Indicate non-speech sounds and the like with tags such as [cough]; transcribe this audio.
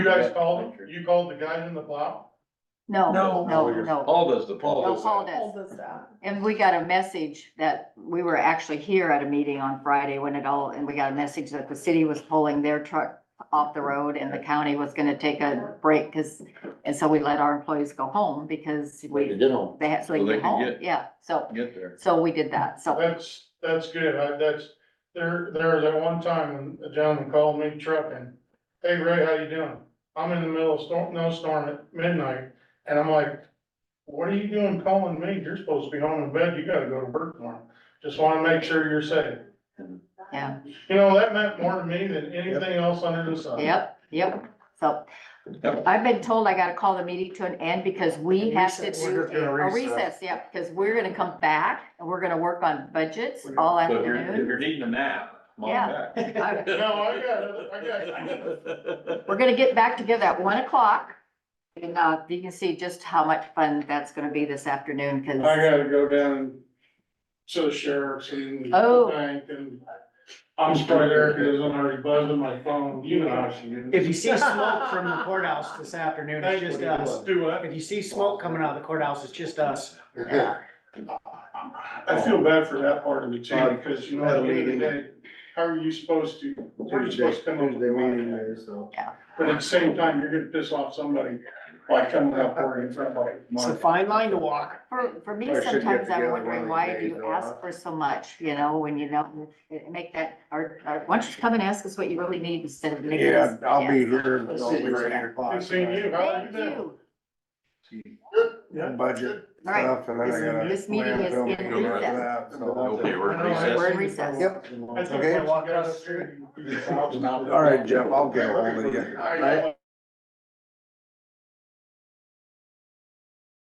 guys called him? You called the guys in the plow? No, No. Oh, no, no. Paul does the Paul. No, does Paul that. does. Hold us up. And we got a message that we were actually here at a meeting on Friday when it all, and we got a message that the city was pulling their truck off the road and the county was gonna take a break, cause, and so we let our employees go home because They we, did home, they had, so So they they could could home, get- yeah, so, get there. so we did that, so. That's, that's good. I, that's, there, there was that one time when a gentleman called me trucking. Hey Ray, how you doing? I'm in the middle of storm, no storm at midnight, and I'm like, what are you doing calling me? You're supposed to be home in bed. You gotta go to work tomorrow. Just wanna make sure you're safe. Yeah. You know, that meant more to me than anything else under the sun. Yep, yep, so. Yep. I've been told I gotta call the meeting to an end because we have to Recess. do We're gonna a recess. recess, yeah, because we're gonna come back and we're gonna work on budgets We're all So if you're, if afternoon. you're needing a nap, come on back. I- [laughs] No, I got it. I got it. [laughs] We're gonna get back together at one o'clock. And, uh, you can see just how much fun that's gonna be this afternoon, I cause, gotta go down to the sheriff's and. Oh. bank and I'm sorry, Eric, it isn't already buzzing my phone, you know how she is. If you see smoke from the courthouse this afternoon, it's just us. Do what? If you see smoke coming out of the courthouse, it's just us. yeah, I feel bad for that part of me too, because you know, at the end of the day, how are you supposed to, where are you supposed to come up with money? so. But at the same time, you're gonna piss off somebody by coming up worrying in front of It's a like. fine line to walk. for, for me, Or should get sometimes I'm together one of wondering, these why do days, you though, ask huh? for so much, you know, when you don't, it- it make that, or, or, why don't you come and ask us what you really need instead of making Yeah, this? I'll be here Let's until see. over eight Good o'clock. seeing you, how are you Thank doing? you, Yeah. Budget all right. stuff and then I gotta. This- this meeting is plan in film recess. after that, Okay, so- we're in recess. We're in recess. Yep. I think Okay. once you get up there, you- [laughs] All right, Jeff, I'll get ahold of you. I know.